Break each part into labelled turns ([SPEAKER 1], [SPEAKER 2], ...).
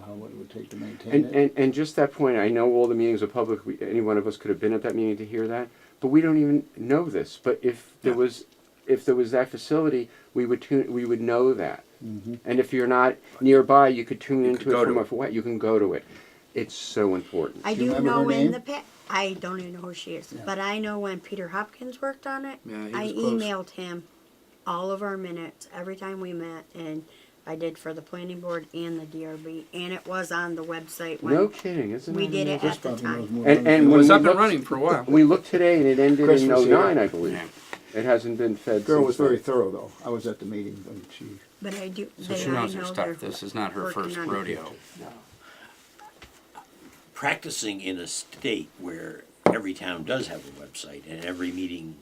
[SPEAKER 1] how, what it would take to maintain
[SPEAKER 2] And,
[SPEAKER 1] it.
[SPEAKER 2] and, and just that point, I know all the meetings are public, we, any one of us could have been at that meeting to hear that, but we don't even know this, but if there
[SPEAKER 3] Yeah.
[SPEAKER 2] was, if there was that facility, we would tune, we would know that. And if you're not nearby, you could tune
[SPEAKER 3] could
[SPEAKER 2] into
[SPEAKER 3] go
[SPEAKER 2] it from
[SPEAKER 3] to
[SPEAKER 2] a,
[SPEAKER 3] it.
[SPEAKER 2] fa- you can go to it. It's so important.
[SPEAKER 4] I
[SPEAKER 1] Do you
[SPEAKER 4] do
[SPEAKER 1] remember her
[SPEAKER 4] know in
[SPEAKER 1] name?
[SPEAKER 4] the pa- I don't even know who she is,
[SPEAKER 1] Yeah.
[SPEAKER 4] but I know when Peter Hopkins worked on it,
[SPEAKER 3] Yeah, he
[SPEAKER 4] I
[SPEAKER 3] was close.
[SPEAKER 4] emailed him all of our minutes every time we met, and I did for the planning board and the DRB, and it was on the website when
[SPEAKER 2] No kidding, isn't it?
[SPEAKER 4] we did it
[SPEAKER 1] Chris
[SPEAKER 4] at the
[SPEAKER 1] probably knows
[SPEAKER 4] time.
[SPEAKER 1] more
[SPEAKER 2] And,
[SPEAKER 1] than
[SPEAKER 2] and
[SPEAKER 1] we
[SPEAKER 3] It
[SPEAKER 1] do.
[SPEAKER 2] when
[SPEAKER 3] was
[SPEAKER 2] we
[SPEAKER 3] up and
[SPEAKER 2] looked-
[SPEAKER 3] running for a while.
[SPEAKER 2] We looked today and it ended
[SPEAKER 1] Chris
[SPEAKER 2] in
[SPEAKER 1] was here.
[SPEAKER 2] oh-nine, I believe. It hasn't been fed since.
[SPEAKER 1] Girl was very
[SPEAKER 2] then.
[SPEAKER 1] thorough, though. I was at the meeting when she,
[SPEAKER 4] But I do.
[SPEAKER 5] So
[SPEAKER 4] they-
[SPEAKER 5] she
[SPEAKER 4] I
[SPEAKER 5] knows her
[SPEAKER 4] know they're
[SPEAKER 5] stuff. This is not her
[SPEAKER 4] working
[SPEAKER 5] first
[SPEAKER 4] on it.
[SPEAKER 5] rodeo.
[SPEAKER 6] practicing in a state where every town does have a website and every meeting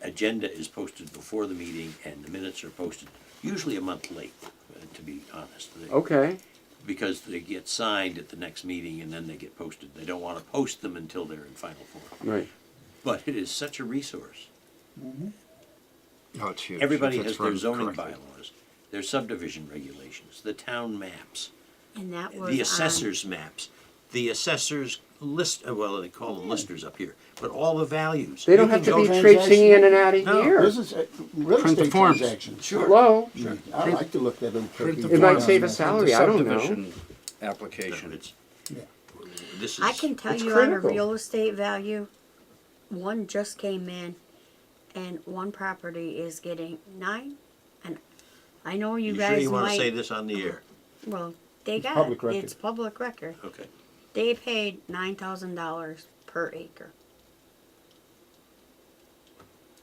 [SPEAKER 6] agenda is posted before the meeting and the minutes are posted, usually a month late, uh, to be honest. They-
[SPEAKER 3] Oh.
[SPEAKER 2] Okay,
[SPEAKER 6] Because they get signed at the next meeting and then they get posted. They don't want to post them until they're in final form.
[SPEAKER 2] right.
[SPEAKER 6] But it is such a resource.
[SPEAKER 3] Oh, it's huge.
[SPEAKER 6] Everybody
[SPEAKER 3] If it's
[SPEAKER 6] has their
[SPEAKER 3] run
[SPEAKER 6] zoning
[SPEAKER 3] correctly.
[SPEAKER 6] bylaws, their subdivision regulations, the town maps.
[SPEAKER 4] And that was um,
[SPEAKER 6] the assessor's maps, the assessor's list, uh, well, they call them listers up here, but all the values.
[SPEAKER 2] They don't
[SPEAKER 6] You
[SPEAKER 2] have to
[SPEAKER 6] can
[SPEAKER 2] be
[SPEAKER 6] go-
[SPEAKER 2] traipsing in and out of
[SPEAKER 6] No,
[SPEAKER 2] here.
[SPEAKER 1] this is uh, real
[SPEAKER 5] Print the
[SPEAKER 1] estate
[SPEAKER 5] forms.
[SPEAKER 1] transactions.
[SPEAKER 6] Sure,
[SPEAKER 2] Hello?
[SPEAKER 1] I like to look at them.
[SPEAKER 3] Print the
[SPEAKER 2] It might
[SPEAKER 3] forms. Print
[SPEAKER 2] save a
[SPEAKER 3] the
[SPEAKER 2] salary, I don't know.
[SPEAKER 3] subdivision Application.
[SPEAKER 6] it's, this
[SPEAKER 4] I can
[SPEAKER 6] is,
[SPEAKER 4] tell
[SPEAKER 2] It's
[SPEAKER 4] you on
[SPEAKER 2] critical.
[SPEAKER 4] a real estate value, one just came in, and one property is getting nine. And I know you,
[SPEAKER 6] you
[SPEAKER 4] guys
[SPEAKER 6] sure you wanna
[SPEAKER 4] might.
[SPEAKER 6] say this on the air?
[SPEAKER 4] Well, they got
[SPEAKER 1] public
[SPEAKER 4] it.
[SPEAKER 1] record.
[SPEAKER 4] It's public record.
[SPEAKER 6] Okay,
[SPEAKER 4] They paid nine thousand dollars per acre.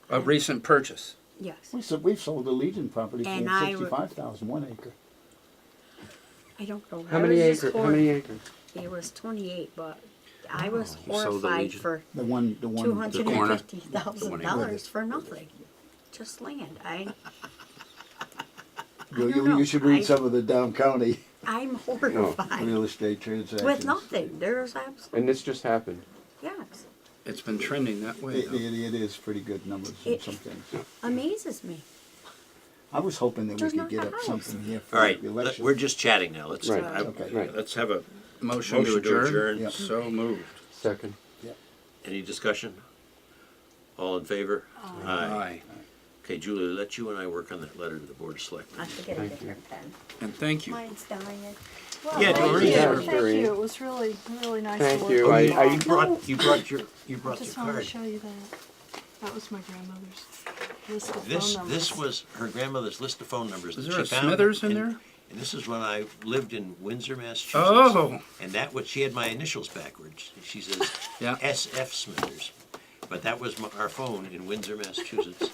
[SPEAKER 5] A recent purchase.
[SPEAKER 4] Yes,
[SPEAKER 1] We said, we've sold the Legion property for
[SPEAKER 4] And I would-
[SPEAKER 1] sixty-five thousand, one acre.
[SPEAKER 4] I don't know.
[SPEAKER 2] How
[SPEAKER 4] I
[SPEAKER 2] many
[SPEAKER 4] was just
[SPEAKER 2] acres, how
[SPEAKER 4] hor-
[SPEAKER 2] many acres?
[SPEAKER 4] It was twenty-eight, but I
[SPEAKER 1] Oh,
[SPEAKER 4] was
[SPEAKER 5] you sold the
[SPEAKER 4] horrified
[SPEAKER 5] Legion.
[SPEAKER 4] for
[SPEAKER 1] The one, the
[SPEAKER 4] two
[SPEAKER 1] one,
[SPEAKER 4] hundred
[SPEAKER 5] The
[SPEAKER 4] and
[SPEAKER 5] corner.
[SPEAKER 4] fifty thousand
[SPEAKER 5] The
[SPEAKER 1] one acre.
[SPEAKER 4] dollars for nothing, just land. I,
[SPEAKER 1] you,
[SPEAKER 4] I don't
[SPEAKER 1] you-
[SPEAKER 4] know.
[SPEAKER 1] you should read
[SPEAKER 4] I-
[SPEAKER 1] some of the down county
[SPEAKER 4] I'm
[SPEAKER 1] real
[SPEAKER 4] horrified
[SPEAKER 1] estate transactions.
[SPEAKER 4] with nothing. There's absolutely
[SPEAKER 2] And this just happened.
[SPEAKER 4] yes,
[SPEAKER 5] It's been trending that way.
[SPEAKER 1] It,
[SPEAKER 5] though.
[SPEAKER 1] it, it is pretty good numbers in
[SPEAKER 4] It-
[SPEAKER 1] some things.
[SPEAKER 4] amazes me.
[SPEAKER 1] I was hoping that we
[SPEAKER 4] There's
[SPEAKER 1] could
[SPEAKER 4] not
[SPEAKER 1] get
[SPEAKER 4] a
[SPEAKER 1] up
[SPEAKER 4] house.
[SPEAKER 1] something here for
[SPEAKER 6] all right,
[SPEAKER 1] the
[SPEAKER 6] let-
[SPEAKER 1] election.
[SPEAKER 6] we're just chatting now, let's,
[SPEAKER 2] Right,
[SPEAKER 6] I-
[SPEAKER 1] okay.
[SPEAKER 2] right.
[SPEAKER 6] let's have a
[SPEAKER 5] Motion to
[SPEAKER 6] motion to
[SPEAKER 5] adjourn.
[SPEAKER 6] adjourn,
[SPEAKER 1] Yeah.
[SPEAKER 5] So moved.
[SPEAKER 2] Second.
[SPEAKER 6] any discussion? All in favor? Aye.
[SPEAKER 5] Aye.
[SPEAKER 6] Okay, Julie, let you and I work on that letter to the Board of Selectmen.
[SPEAKER 4] I have to get a different pen.
[SPEAKER 5] And thank you.
[SPEAKER 4] Mine's dying.
[SPEAKER 7] Well,
[SPEAKER 6] Yeah,
[SPEAKER 7] thank
[SPEAKER 6] Doreen.
[SPEAKER 7] you.
[SPEAKER 2] Yeah,
[SPEAKER 7] Thank
[SPEAKER 2] Doreen.
[SPEAKER 7] you. It was really, really nice
[SPEAKER 2] Thank
[SPEAKER 7] to work
[SPEAKER 2] you.
[SPEAKER 7] with
[SPEAKER 2] I-
[SPEAKER 7] you.
[SPEAKER 2] I-
[SPEAKER 7] all.
[SPEAKER 6] You brought, you brought your, you brought your
[SPEAKER 7] just wanted to
[SPEAKER 6] card.
[SPEAKER 7] show you that. That was my grandmother's list of
[SPEAKER 6] This,
[SPEAKER 7] phone numbers.
[SPEAKER 6] this was her grandmother's list of phone numbers.
[SPEAKER 5] Is
[SPEAKER 6] that
[SPEAKER 5] there
[SPEAKER 6] she
[SPEAKER 5] a
[SPEAKER 6] found
[SPEAKER 5] Smithers in there?
[SPEAKER 6] And this is when I lived in Windsor, Massachusetts.
[SPEAKER 5] Oh.
[SPEAKER 6] And that was, she had my initials backwards. She says
[SPEAKER 5] Yeah.
[SPEAKER 6] S.F. Smithers. But that was my, our phone in Windsor, Massachusetts.